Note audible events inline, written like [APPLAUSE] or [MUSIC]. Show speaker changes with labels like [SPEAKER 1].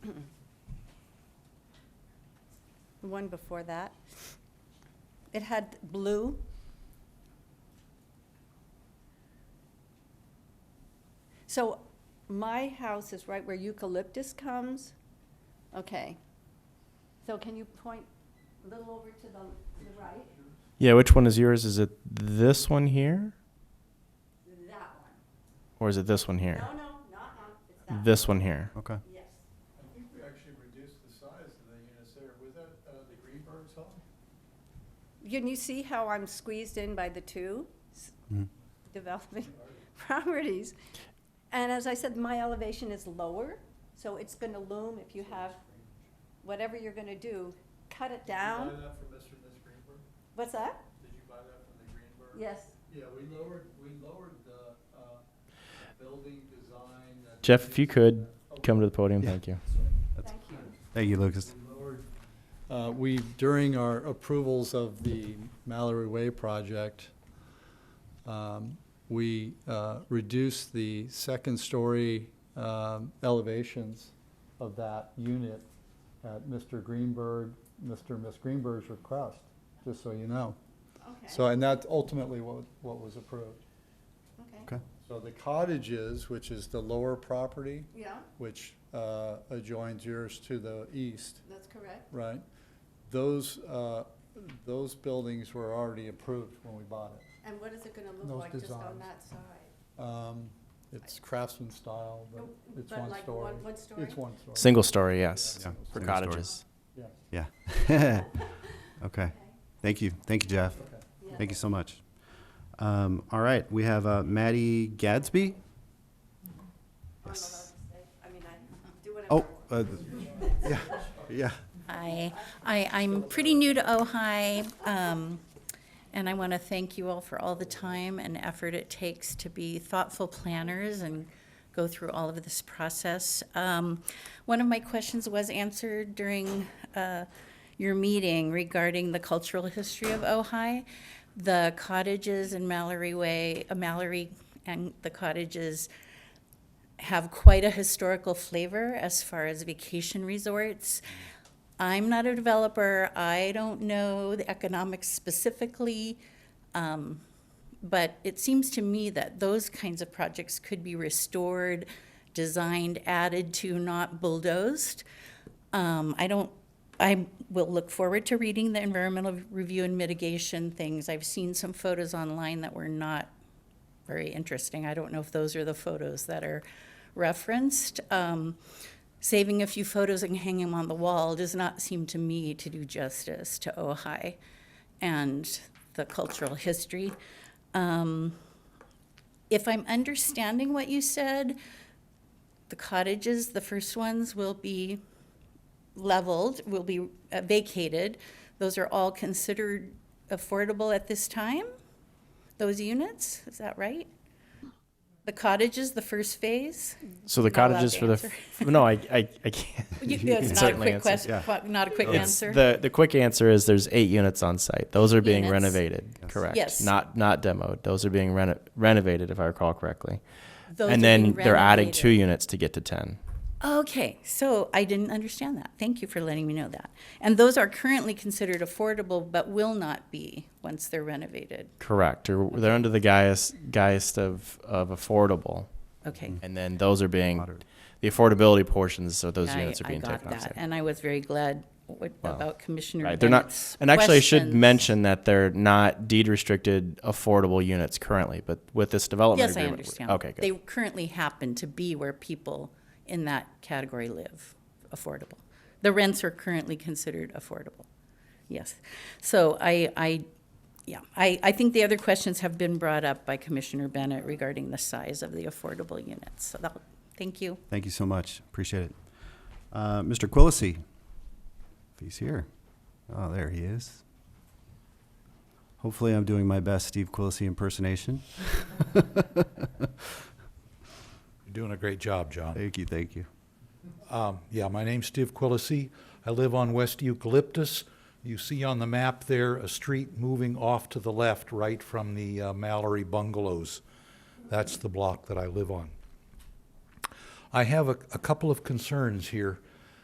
[SPEAKER 1] one before that. It had blue. So my house is right where eucalyptus comes. Okay. So can you point a little over to the, to the right?
[SPEAKER 2] Yeah, which one is yours? Is it this one here
[SPEAKER 1] That one.
[SPEAKER 2] or is it this one here?
[SPEAKER 1] No, no, not, not, it's that.
[SPEAKER 2] This one here.
[SPEAKER 3] Okay.
[SPEAKER 1] one. Yes.
[SPEAKER 4] I think we actually reduced the size of the units there. Was that uh, the Greenberg's home?
[SPEAKER 1] Can you see how I'm squeezed in by the two s-
[SPEAKER 2] Mm-hmm.
[SPEAKER 3] Mhm.
[SPEAKER 1] development [LAUGHS] properties? And as I said, my elevation is lower, so it's gonna loom if you have, whatever you're gonna do, cut it
[SPEAKER 4] Did you buy
[SPEAKER 1] down.
[SPEAKER 4] that from Mr. and Ms. Greenberg?
[SPEAKER 1] What's that?
[SPEAKER 4] Did you buy that from the Greenberg?
[SPEAKER 1] Yes.
[SPEAKER 4] Yeah, we lowered, we lowered the uh, building design. uh, and-
[SPEAKER 2] Jeff, if you could come to the podium,
[SPEAKER 3] Yeah.
[SPEAKER 2] thank
[SPEAKER 4] oh,
[SPEAKER 2] you.
[SPEAKER 3] That's-
[SPEAKER 1] Thank you.
[SPEAKER 3] Thank you, Lucas.
[SPEAKER 4] We lowered- uh, We, during our approvals of the Mallory Way project, um, we uh, reduced the second-story um, elevations of that unit at Mr. Greenberg, Mr. and Ms. Greenberg's request, just so you know. So,
[SPEAKER 1] Okay,
[SPEAKER 4] and that's ultimately what, what was approved.
[SPEAKER 1] okay,
[SPEAKER 3] Okay.
[SPEAKER 4] So the cottages, which is the lower property,
[SPEAKER 1] yeah,
[SPEAKER 4] which uh, adjoins yours to the east,
[SPEAKER 1] that's correct.
[SPEAKER 4] Right. Those, uh, those buildings were already approved when we bought it.
[SPEAKER 1] And what is it gonna look
[SPEAKER 4] Those
[SPEAKER 1] like just on
[SPEAKER 4] designs.
[SPEAKER 1] that side?
[SPEAKER 4] [LAUGHS] Um, It's craftsman style, but
[SPEAKER 1] No,
[SPEAKER 4] it's
[SPEAKER 1] Oh, but
[SPEAKER 4] one
[SPEAKER 1] like
[SPEAKER 4] story.
[SPEAKER 1] one- one story?
[SPEAKER 4] It's one story.
[SPEAKER 2] Single story, yes.
[SPEAKER 3] Yeah,
[SPEAKER 2] For
[SPEAKER 3] single story.
[SPEAKER 2] cottages.
[SPEAKER 4] Yeah,
[SPEAKER 3] Yeah. [LAUGHS] okay. Thank you. Thank you, Jeff.
[SPEAKER 4] okay.
[SPEAKER 1] Yeah.
[SPEAKER 3] Thank you so much. Um, all right. We have uh, Maddie Gadsby.
[SPEAKER 1] I'm allowed to say, I mean, I do whatever. I
[SPEAKER 3] Oh,
[SPEAKER 1] want.
[SPEAKER 3] uh, yeah. Yeah.
[SPEAKER 5] Hi, I, I'm pretty new to Ojai, um, and I want to thank you all for all the time and effort it takes to be thoughtful planners and go through all of this process. Um, one of my questions was answered during, uh, your meeting regarding the cultural history of Ojai. The cottages in Mallory Way, uh, Mallory and the cottages have quite a historical flavor as far as vacation resorts. I'm not a developer. I don't know the economics specifically. Um, but it seems to me that those kinds of projects could be restored, designed, added to, not bulldozed. Um, I don't, I will look forward to reading the environmental review and mitigation things. I've seen some photos online that were not very interesting. I don't know if those are the photos that are referenced. Um, saving a few photos and hanging them on the wall does not seem to me to do justice to Ojai and the cultural history. Um, if I'm understanding what you said, the cottages, the first ones, will be leveled, will be uh, vacated. Those are all considered affordable at this time? Those units, is that right? The cottages, the first phase?
[SPEAKER 2] So the
[SPEAKER 5] Not allowed
[SPEAKER 2] cottages
[SPEAKER 5] to
[SPEAKER 2] for the
[SPEAKER 5] answer.
[SPEAKER 2] f- no, I I,
[SPEAKER 5] [LAUGHS]
[SPEAKER 2] I can't.
[SPEAKER 5] You- It's not a
[SPEAKER 2] certainly
[SPEAKER 5] quick
[SPEAKER 2] answer,
[SPEAKER 5] question, not a quick
[SPEAKER 2] It's
[SPEAKER 5] answer?
[SPEAKER 2] the the quick answer is there's eight units on site. Those are being
[SPEAKER 5] Units.
[SPEAKER 2] renovated,
[SPEAKER 3] Yes.
[SPEAKER 2] correct?
[SPEAKER 5] Yes.
[SPEAKER 2] Not not demoed. Those are being reno- renovated, if I recall correctly.
[SPEAKER 5] Those
[SPEAKER 2] and
[SPEAKER 5] are
[SPEAKER 2] then
[SPEAKER 5] being
[SPEAKER 2] they're adding two
[SPEAKER 5] renovated.
[SPEAKER 2] units to get to ten.
[SPEAKER 5] Okay, so I didn't understand that. Thank you for letting me know that. And those are currently considered affordable, but will not be once they're renovated.
[SPEAKER 2] Correct. Or they're under the guise guise of of affordable,
[SPEAKER 5] Okay.
[SPEAKER 2] and then those are being
[SPEAKER 3] Moderate.
[SPEAKER 2] the affordability portions of those
[SPEAKER 5] I-
[SPEAKER 2] units are being taken
[SPEAKER 5] I
[SPEAKER 2] off
[SPEAKER 5] got that,
[SPEAKER 2] site.
[SPEAKER 5] and I was very glad what-
[SPEAKER 2] Wow.
[SPEAKER 5] about Commissioner
[SPEAKER 2] Right. They're not,
[SPEAKER 5] Bennett's
[SPEAKER 2] and actually, I should
[SPEAKER 5] questions.
[SPEAKER 2] mention that they're not deed restricted affordable units currently, but with this development
[SPEAKER 5] Yes, I
[SPEAKER 2] agreement.
[SPEAKER 5] understand.
[SPEAKER 2] Okay, good.
[SPEAKER 5] They currently happen to be where people in that category live, affordable. The rents are currently considered affordable. Yes. So I, I, yeah, I, I think the other questions have been brought up by Commissioner Bennett regarding the size of the affordable units. So that, thank you.
[SPEAKER 3] Thank you so much. Appreciate it. Uh, Mr. Quillisi, if he's here. Oh, there he is. Hopefully, I'm doing my best Steve Quillisi impersonation.
[SPEAKER 6] You're doing a great job, John.
[SPEAKER 3] Thank you. Thank you.
[SPEAKER 6] Um, yeah, my name's Steve Quillisi. I live on West Eucalyptus. You see on the map there a street moving off to the left, right from the uh, Mallory bungalows. That's the block that I live on. I have a, a couple of concerns here.